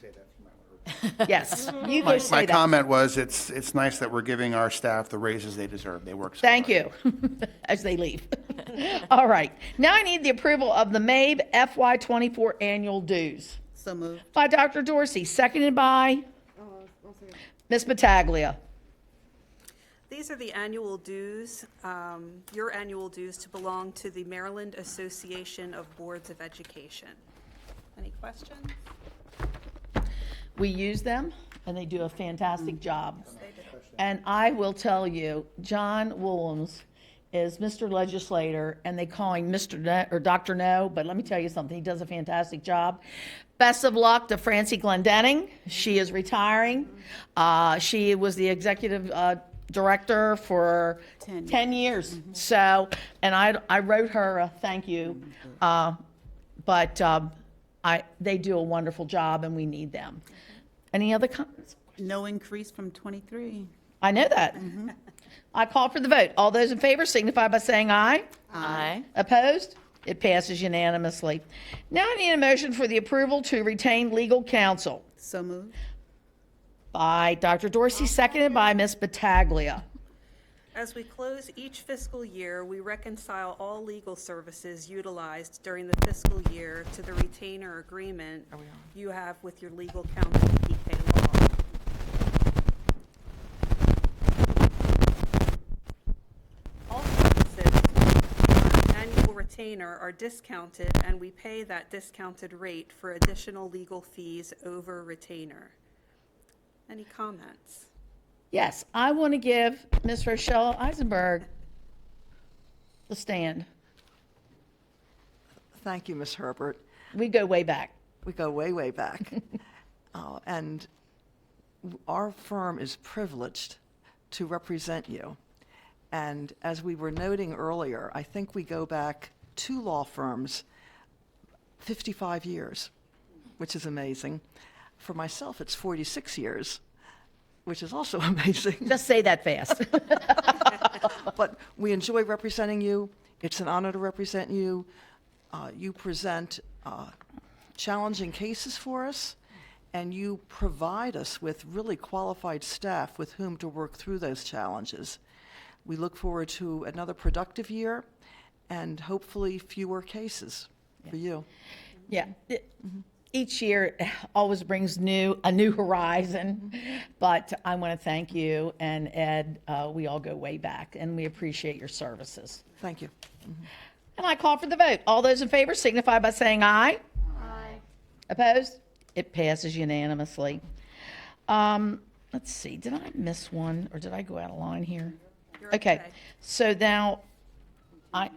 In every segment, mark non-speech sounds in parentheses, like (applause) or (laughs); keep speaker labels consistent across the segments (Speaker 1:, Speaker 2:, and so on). Speaker 1: say that from my order.
Speaker 2: Yes,
Speaker 3: Mm-hmm.
Speaker 2: you can
Speaker 4: My, my
Speaker 2: say that.
Speaker 4: comment was, it's, it's nice that we're giving our staff the raises they deserve. They work so hard.
Speaker 2: Thank
Speaker 4: (laughs)
Speaker 2: you, as they leave. (laughs) All right, now I need the approval of the MABE FY twenty-four annual dues
Speaker 3: So moved. Oh,
Speaker 2: by Dr. Dorsey, seconded by Ms. Pataglia.
Speaker 5: These are the annual dues, um, your annual dues to belong to the Maryland Association of Boards of Education. Any questions?
Speaker 2: We use them, and they do a fantastic job. And I will tell you, John Williams is Mr. Legislator, and they call him Mr. No, or Dr. No, but let me tell you something, he does a fantastic job. Best of luck to Francie Glendenning, she is retiring. Uh, she was the executive, uh, director for
Speaker 3: Ten
Speaker 2: ten years, so, and I, I wrote her a thank you. Uh, but, um, I, they do a wonderful job and we need them. Any other comments?
Speaker 3: No increase from 23.
Speaker 2: I know that. I call for the vote. All those in favor signify by saying aye.
Speaker 6: Aye.
Speaker 2: Opposed? It passes unanimously. Now I need a motion for the approval to retain legal counsel
Speaker 3: So moved.
Speaker 2: by Dr. Dorsey, seconded by Ms. Battaglia.
Speaker 5: As we close each fiscal year, we reconcile all legal services utilized during the fiscal year to the retainer agreement you have with your legal counsel, PK Law. All services on annual retainer are discounted, and we pay that discounted rate for additional legal fees over retainer. Any comments?
Speaker 2: Yes, I want to give Ms. Rochelle Eisenberg the stand.
Speaker 6: Thank you, Ms. Herbert.
Speaker 2: We go way back.
Speaker 6: We go way, way back. Uh, And w- our firm is privileged to represent you. And as we were noting earlier, I think we go back two law firms 55 years, which is amazing. For myself, it's 46 years, which is also (laughs) amazing.
Speaker 2: Just say that (laughs) fast.
Speaker 6: But we enjoy representing you. It's an honor to represent you. Uh, you present uh, challenging cases for us, and you provide us with really qualified staff with whom to work through those challenges. We look forward to another productive year and hopefully fewer cases for you.
Speaker 2: Yeah. It- Each year always brings new, a new horizon, but I want to thank you and Ed, uh, we all go way back and we appreciate your services.
Speaker 6: Thank you.
Speaker 2: And I call for the vote. All those in favor signify by saying aye. Aye. Opposed? It passes unanimously. Um, let's see, did I miss one or did I go out of line here? Okay, so now I,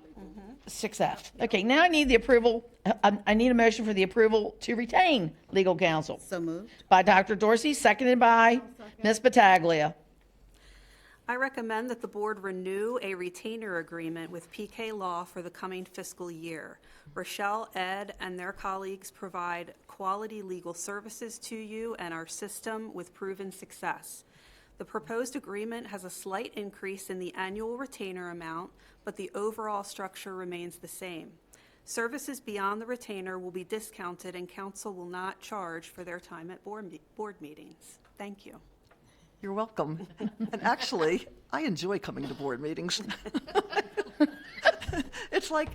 Speaker 2: six F. Okay, now I need the approval, I, I need a motion for the approval to retain legal counsel
Speaker 3: So moved.
Speaker 2: by Dr. Dorsey, seconded by Ms. Pataglia.
Speaker 5: I recommend that the board renew a retainer agreement with PK Law for the coming fiscal year. Rochelle, Ed, and their colleagues provide quality legal services to you and our system with proven success. The proposed agreement has a slight increase in the annual retainer amount, but the overall structure remains the same. Services beyond the retainer will be discounted, and council will not charge for their time at board me- board meetings. Thank you.
Speaker 6: You're welcome. and actually, I enjoy coming to board meetings. (laughs) it's like,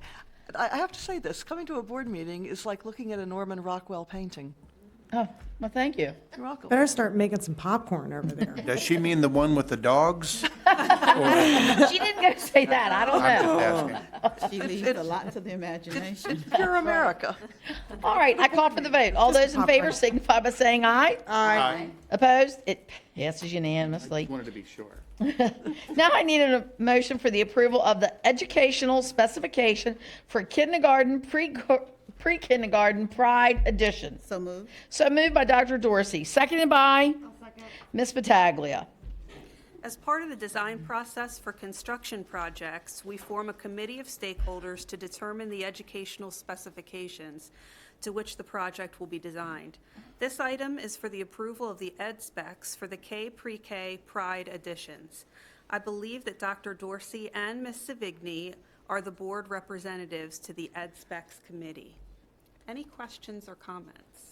Speaker 6: I I have to say this coming to a board meeting is like looking at a Norman Rockwell painting.
Speaker 2: Oh, well, thank you.
Speaker 6: You're welcome.
Speaker 7: Better start making some popcorn over there.
Speaker 4: Does she mean the one with the dogs?
Speaker 2: She didn't go say that, (laughs) I don't
Speaker 4: I'm
Speaker 2: know.
Speaker 4: just asking.
Speaker 3: She leaves a lot to the imagination.
Speaker 6: Pure America.
Speaker 2: All right, I call for the vote. All those in
Speaker 7: pop
Speaker 2: favor
Speaker 7: right-
Speaker 2: signify by saying aye.
Speaker 4: Aye.
Speaker 2: Opposed? It passes unanimously.
Speaker 4: Wanted to be sure.
Speaker 2: (laughs) Now I need a motion for the approval of the educational specification for kindergarten, pre- pre-kindergarten Pride Edition.
Speaker 3: So moved.
Speaker 2: So moved by Dr. Dorsey, seconded by Ms. Pataglia.
Speaker 5: As part of the design process for construction projects, we form a committee of stakeholders to determine the educational specifications to which the project will be designed. This item is for the approval of the ed specs for the K pre-K Pride editions. I believe that Dr. Dorsey and Ms. Savigny are the board representatives to the ed specs committee. Any questions or comments?